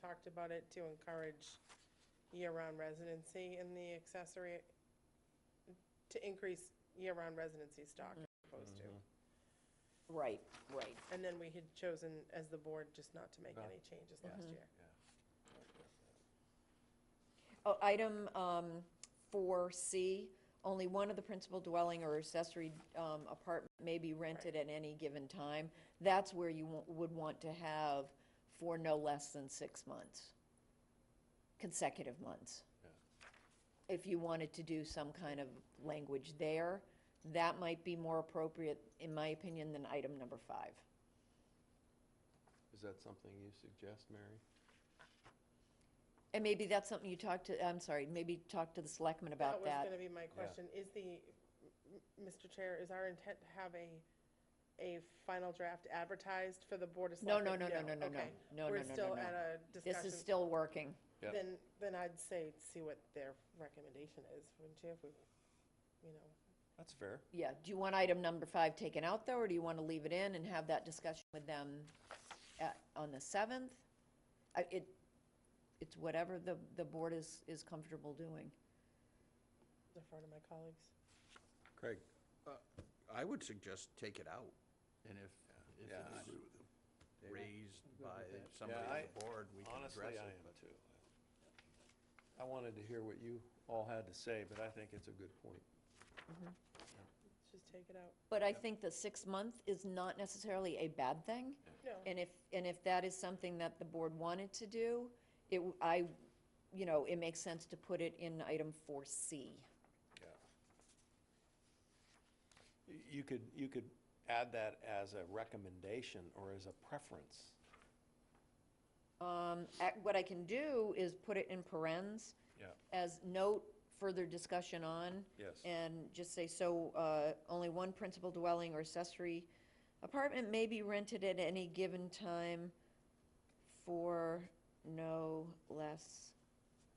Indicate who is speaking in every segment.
Speaker 1: talked about it to encourage year-round residency in the accessory, to increase year-round residency stock as opposed to.
Speaker 2: Right, right.
Speaker 1: And then we had chosen, as the board, just not to make
Speaker 3: Not-
Speaker 1: any changes
Speaker 2: Mm-hmm.
Speaker 1: last year.
Speaker 2: Oh, item, um, four C, only one of the principal dwelling or accessory, um, apartment may be rented at any given time. That's where you wa- would want to have for no less than six months, consecutive months. If you wanted to do some kind of language there, that might be more appropriate, in my opinion, than item number five.
Speaker 3: Is that something you suggest, Mary?
Speaker 2: And maybe that's something you talk to, I'm sorry, maybe talk to the selectmen about
Speaker 1: was
Speaker 2: that.
Speaker 1: gonna be my question, is the, m- Mr. Chair, is our intent to have a, a final draft advertised for the Board of
Speaker 2: No,
Speaker 1: Selectmen?
Speaker 2: no, no, no, no, no, no,
Speaker 1: okay.
Speaker 2: no, no, no,
Speaker 1: We're
Speaker 2: no,
Speaker 1: still
Speaker 2: no.
Speaker 1: at a discussion.
Speaker 2: This is still working.
Speaker 3: Yeah.
Speaker 1: Then, then I'd say, see what their recommendation is, wouldn't you, if we, you know?
Speaker 3: That's fair.
Speaker 2: Yeah, do you want item number five taken out though, or do you want to leave it in and have that discussion with them at, on the seventh? I, it, it's whatever the, the board is, is comfortable doing.
Speaker 1: defer to my colleagues.
Speaker 3: Craig?
Speaker 4: I would suggest take it out, and if, if
Speaker 3: Yeah, I
Speaker 4: it's
Speaker 3: agree
Speaker 4: raised by
Speaker 3: Yeah,
Speaker 4: somebody on
Speaker 3: I-
Speaker 4: the board, we can address it. but-
Speaker 3: too. I wanted to hear what you all had to say, but I think it's a good point.
Speaker 1: Let's just take it out.
Speaker 2: But I think the six month is not necessarily a bad thing.
Speaker 1: No.
Speaker 2: And if, and if that is something that the board wanted to do, it, w- I, you know, it makes sense to put it in item four C.
Speaker 3: Y- You could, you could add that as a recommendation or as a preference.
Speaker 2: Um, ac- what I can do is put it in parentheses
Speaker 3: Yeah.
Speaker 2: as note further discussion on.
Speaker 3: Yes.
Speaker 2: And just say, so, uh, only one principal dwelling or accessory apartment may be rented at any given time for no less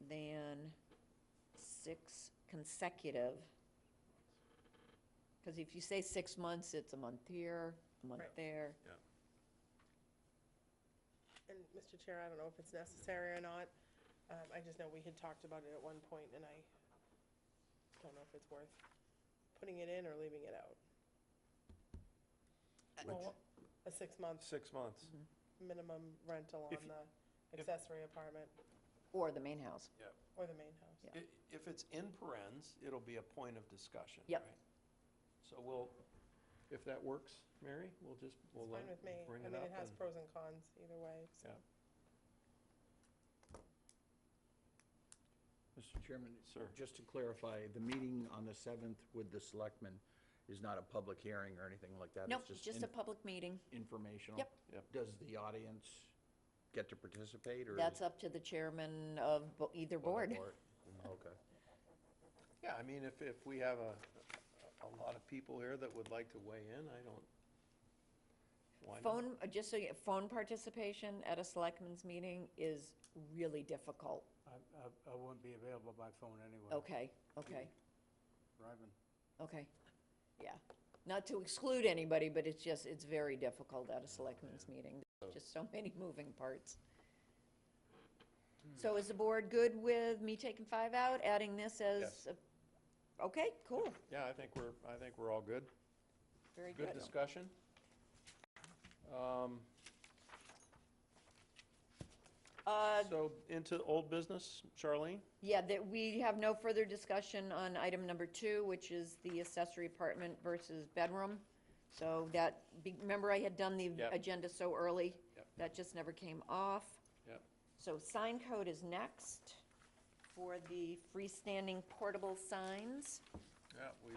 Speaker 2: than six consecutive. Cause if you say six months, it's a month here, a month
Speaker 1: Right.
Speaker 2: there.
Speaker 1: And Mr. Chair, I don't know if it's necessary or not. Um, I just know we had talked about it at one point, and I don't know if it's worth putting it in or leaving it out. Well, A six-month
Speaker 3: Six months.
Speaker 1: Mm-hmm. minimum rental on
Speaker 3: If y-
Speaker 1: the
Speaker 3: if-
Speaker 1: accessory apartment
Speaker 2: Or the main house.
Speaker 1: or the main house.
Speaker 2: Yeah.
Speaker 3: I- If it's in parentheses, it'll be a point of discussion,
Speaker 2: Yep.
Speaker 3: right? So we'll, if that works, Mary, we'll just, we'll
Speaker 1: It's
Speaker 3: let,
Speaker 1: fine with me.
Speaker 3: bring
Speaker 1: I
Speaker 3: it
Speaker 1: mean,
Speaker 3: up.
Speaker 1: it has
Speaker 3: and-
Speaker 1: pros and cons either way, so.
Speaker 3: Yeah.
Speaker 4: Mr. Chairman,
Speaker 3: Sir.
Speaker 4: just to clarify, the meeting on the 7th with the selectmen is not a public hearing or anything like that?
Speaker 2: Nope,
Speaker 4: It's
Speaker 2: just
Speaker 4: in-
Speaker 2: a public meeting.
Speaker 4: informational?
Speaker 2: Yep.
Speaker 3: Yep.
Speaker 4: Does the audience get to participate, or? is
Speaker 2: That's
Speaker 4: it
Speaker 2: up to the chairman of bo- either
Speaker 4: for
Speaker 2: board.
Speaker 4: the board? Okay.
Speaker 3: Yeah, I mean, if, if we have a, a lot of people here that would like to weigh in, I don't, why not?
Speaker 2: Phone, uh, just so you, phone participation at a selectmen's meeting is really difficult.
Speaker 5: I, I, I won't be available by phone anyway.
Speaker 2: Okay, okay,
Speaker 5: Driving.
Speaker 2: okay. Yeah. Not to exclude anybody, but it's just, it's very difficult at a selectmen's meeting. There's Just so many moving parts.
Speaker 3: Hmm.
Speaker 2: So is the board good with me taking five out, adding this as?
Speaker 3: Yes.
Speaker 2: a- Okay, cool,
Speaker 3: Yeah, I think we're, I think we're all good.
Speaker 2: very good.
Speaker 3: Good discussion. Um,
Speaker 2: Uh,
Speaker 3: So into old business, Charlene?
Speaker 2: Yeah, that we have no further discussion on item number two, which is the accessory apartment versus bedroom. So that, be- remember I had done the
Speaker 3: Yep.
Speaker 2: agenda so early?
Speaker 3: Yep.
Speaker 2: That just never came off.
Speaker 3: Yep.
Speaker 2: So sign code is next for the freestanding portable signs.
Speaker 3: Yeah, we,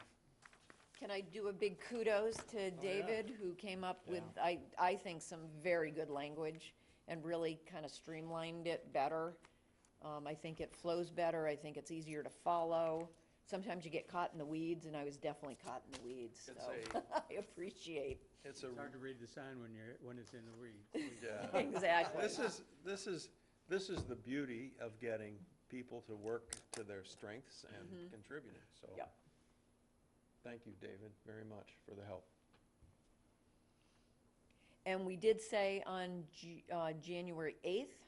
Speaker 2: Can I do a big kudos to David, who came up with, I, I think, some very good language and really kind of streamlined it better. Um, I think it flows better, I think it's easier to follow. Sometimes you get caught in the weeds, and I was definitely caught in the weeds, so
Speaker 3: It's
Speaker 2: I appreciate,
Speaker 3: it's a,
Speaker 5: It's hard to read the sign when you're, when it's in the weeds.
Speaker 3: yeah.
Speaker 2: exactly.
Speaker 3: This is, this is, this is the beauty of getting people to work to their strengths and contributing, so.
Speaker 2: Mm-hmm. Yep.
Speaker 3: Thank you, David, very much for the help.
Speaker 2: And we did say on Ju- uh, January eighth